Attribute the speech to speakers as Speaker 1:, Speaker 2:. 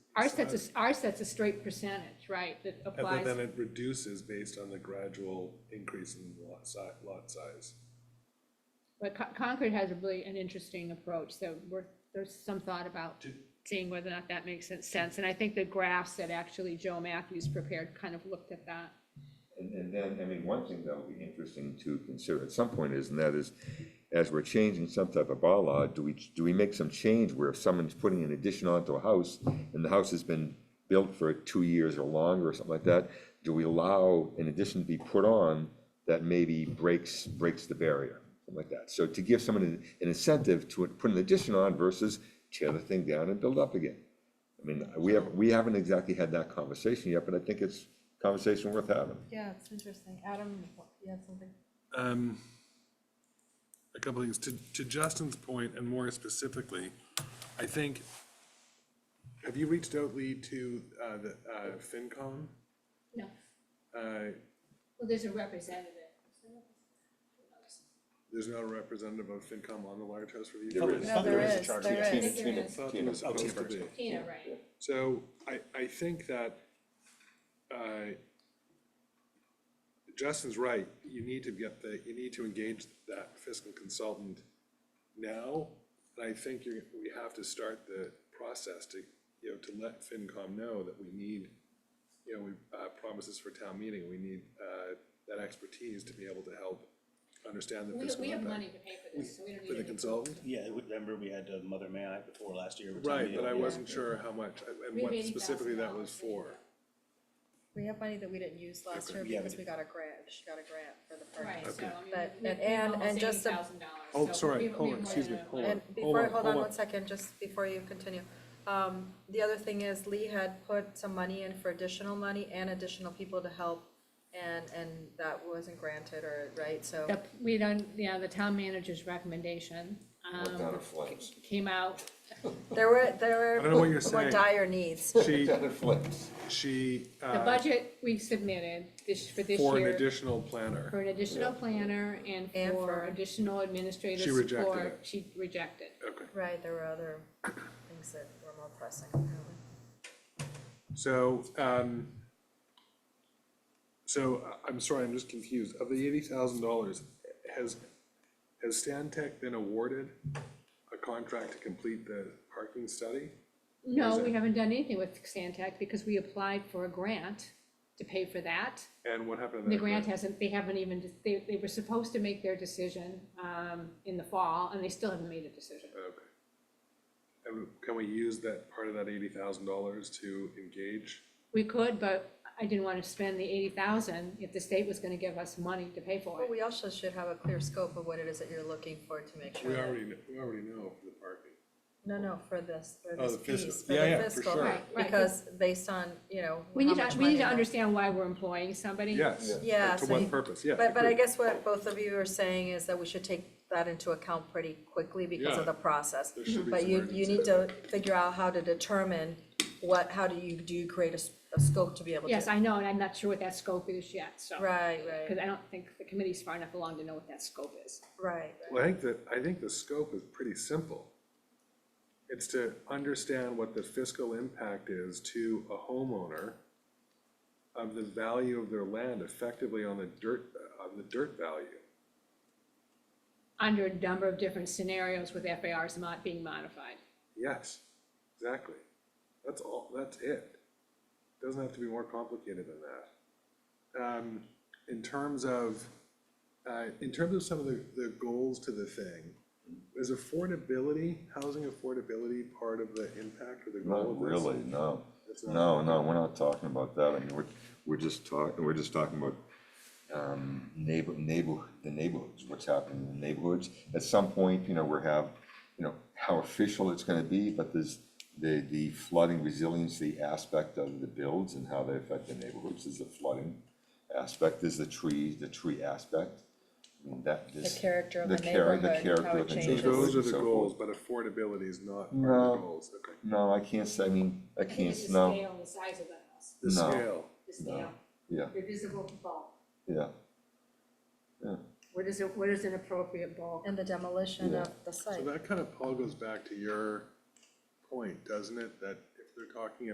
Speaker 1: Our sets a, our sets a straight percentage, right, that
Speaker 2: And but
Speaker 1: applies.
Speaker 2: then it reduces based on the gradual increase in lot si, lot size.
Speaker 1: But Con- Concord has a really, an interesting approach, so we're, there's some thought about seeing whether or not that makes sen- sense. And I think the graphs that actually Joe Matthews prepared kind of looked at that.
Speaker 3: And, and then, I mean, one thing that would be interesting to consider at some point is, and that is, as we're changing some type of bylaw, do we, do we make some change where if someone's putting an addition onto a house, and the house has been built for two years or longer or something like that, do we allow an addition to be put on that maybe breaks, breaks the barrier, something like that? So to give someone an an incentive to put an addition on versus tear the thing down and build up again. I mean, we have, we haven't exactly had that conversation yet, but I think it's a conversation worth having.
Speaker 4: Yeah, it's interesting. Adam, you had something?
Speaker 2: Um, a couple things, to, to Justin's point, and more specifically, I think, have you reached out, Lee, to, uh, the, uh, FinCom?
Speaker 1: No,
Speaker 2: Uh,
Speaker 1: well, there's a representative.
Speaker 2: there's not a representative of FinCom on the Large House Review?
Speaker 3: There
Speaker 2: Committee?
Speaker 3: is.
Speaker 4: No, there is, there
Speaker 1: Tina-
Speaker 4: is.
Speaker 1: Tina-
Speaker 2: Thought there was supposed to be.
Speaker 1: Tina, right.
Speaker 2: So I, I think that, uh, Justin's right, you need to get the, you need to engage that fiscal consultant now. And I think you're, we have to start the process to, you know, to let FinCom know that we need, you know, we, uh, promises for town meeting, we need, uh, that expertise to be able to help understand the
Speaker 1: We,
Speaker 2: fiscal
Speaker 1: we have money
Speaker 2: impact.
Speaker 1: to pay for this, so we don't
Speaker 2: For
Speaker 1: need
Speaker 2: the
Speaker 1: any.
Speaker 2: consultant,
Speaker 5: Yeah, we- remember we had uh, Mother May I before last year. with
Speaker 2: right,
Speaker 5: Tommy,
Speaker 2: but I
Speaker 5: yeah.
Speaker 2: wasn't sure how much, and what
Speaker 1: $80,000
Speaker 2: specifically that was for.
Speaker 4: We have money that we didn't use last year
Speaker 5: Yeah, we
Speaker 4: because we got a grant, she got a grant for the
Speaker 1: Right,
Speaker 4: park.
Speaker 1: so I mean,
Speaker 4: But-
Speaker 1: we-
Speaker 4: and-
Speaker 1: we
Speaker 4: and-
Speaker 1: almost
Speaker 4: and just some-
Speaker 1: $80,000,
Speaker 2: Oh,
Speaker 1: so
Speaker 2: sorry,
Speaker 1: we- we
Speaker 2: hold
Speaker 1: have
Speaker 2: on,
Speaker 1: more
Speaker 2: excuse
Speaker 1: than
Speaker 2: me,
Speaker 1: enough.
Speaker 2: hold
Speaker 4: And
Speaker 2: on,
Speaker 4: before,
Speaker 2: on,
Speaker 4: hold on
Speaker 2: hold on.
Speaker 4: one second, just before you continue. Um, the other thing is Lee had put some money in for additional money and additional people to help. And, and that wasn't granted or, right, so.
Speaker 1: The- We don't, yeah, the town manager's recommendation,
Speaker 3: Or down
Speaker 1: um,
Speaker 3: in flames.
Speaker 1: came out,
Speaker 4: There were, there
Speaker 2: I don't know what you're
Speaker 4: were more
Speaker 2: saying.
Speaker 4: dire needs.
Speaker 2: She,
Speaker 3: Down in flames.
Speaker 2: She,
Speaker 1: the
Speaker 2: uh,
Speaker 1: budget we submitted this, for this year.
Speaker 2: for an additional planner,
Speaker 1: for an additional planner and
Speaker 4: And
Speaker 1: for
Speaker 4: for-
Speaker 1: additional administrative
Speaker 2: She rejected
Speaker 1: support,
Speaker 2: it.
Speaker 1: she rejected.
Speaker 2: okay,
Speaker 4: Right, there were other things that were more pressing. apparently.
Speaker 2: so, um, so, I- I'm sorry, I'm just confused, of the eighty thousand dollars, has, has Stantec been awarded a contract to complete the parking study?
Speaker 1: No, we haven't done anything with Stantec because we applied for a grant to pay for that.
Speaker 2: And what happened to
Speaker 1: The
Speaker 2: that?
Speaker 1: grant hasn't, they haven't even, they, they were supposed to make their decision, um, in the fall, and they still haven't made a decision.
Speaker 2: Okay. And can we use that, part of that eighty thousand dollars to engage?
Speaker 1: We could, but I didn't wanna spend the eighty thousand if the state was gonna give us money to pay for
Speaker 4: But
Speaker 1: it.
Speaker 4: we also should have a clear scope of what it is that you're looking for to make sure.
Speaker 2: We
Speaker 4: that-
Speaker 2: already, kn- we already know for the parking.
Speaker 4: No, no, for this, for
Speaker 2: Oh,
Speaker 4: this
Speaker 2: the fiscal.
Speaker 4: piece, for
Speaker 2: Yeah,
Speaker 4: the
Speaker 2: yeah, for
Speaker 4: fiscal,
Speaker 2: sure.
Speaker 1: Right, right.
Speaker 4: because based on, you know,
Speaker 1: We
Speaker 4: how
Speaker 1: need
Speaker 4: much
Speaker 1: to, we need
Speaker 4: money-
Speaker 1: to understand why we're employing somebody.
Speaker 2: Yes.
Speaker 4: Yeah,
Speaker 2: To
Speaker 4: so
Speaker 2: what
Speaker 4: you-
Speaker 2: purpose, yeah.
Speaker 4: But, but I
Speaker 2: agreed.
Speaker 4: guess what both of you are saying is that we should take that into account pretty quickly because
Speaker 2: Yeah.
Speaker 4: of the process.
Speaker 2: There should be
Speaker 4: But
Speaker 2: some
Speaker 4: you, you
Speaker 2: urgency.
Speaker 4: need to figure out how to determine what, how do you, do you create a, s- a scope to be able to?
Speaker 1: Yes, I know, and I'm not sure what that scope is yet, so.
Speaker 4: Right,
Speaker 1: Because
Speaker 4: right,
Speaker 1: I don't think the committee's far enough along to know what that scope is.
Speaker 4: right,
Speaker 2: Well, I think that, I think the scope is pretty simple. It's to understand what the fiscal impact is to a homeowner of the value of their land effectively on the dirt, on the dirt value.
Speaker 1: Under a number of different scenarios with FARs not being modified.
Speaker 2: Yes, exactly. That's all, that's it. Doesn't have to be more complicated than that. Um, in terms of, uh, in terms of some of the, the goals to the thing, is affordability, housing affordability part of the impact or the goal of
Speaker 3: Not
Speaker 2: this?
Speaker 3: really, no.
Speaker 2: It's not-
Speaker 3: No, no, we're not talking about that. I mean, we're, we're just talking, we're just talking about um, neighbor, neighbor, the neighborhoods, what's happening in the neighborhoods. At some point, you know, we're have, you know, how official it's gonna be, but there's the, the flooding resiliency aspect of the builds and how they affect the neighborhoods, there's the flooding aspect, there's the trees, the tree aspect. I mean, that,
Speaker 4: The
Speaker 3: this.
Speaker 4: character of a
Speaker 3: chara-
Speaker 4: neighborhood, how
Speaker 3: character
Speaker 4: it
Speaker 3: of a
Speaker 2: So
Speaker 4: changes.
Speaker 3: neighborhood
Speaker 2: those are
Speaker 3: and
Speaker 2: the
Speaker 3: so forth.
Speaker 2: goals, but affordability is not part of
Speaker 3: No.
Speaker 2: the goals, okay.
Speaker 3: No, I can't say, I mean, I can't, no,
Speaker 1: the size of the house,
Speaker 2: The
Speaker 3: No.
Speaker 2: scale,
Speaker 1: the
Speaker 3: scale, yeah,
Speaker 1: your visible bulk.
Speaker 3: yeah.
Speaker 1: What is, it? what is an appropriate bulk?
Speaker 4: And the demolition of the site.
Speaker 2: so that kind of all goes back to your point, doesn't it? That if they're talking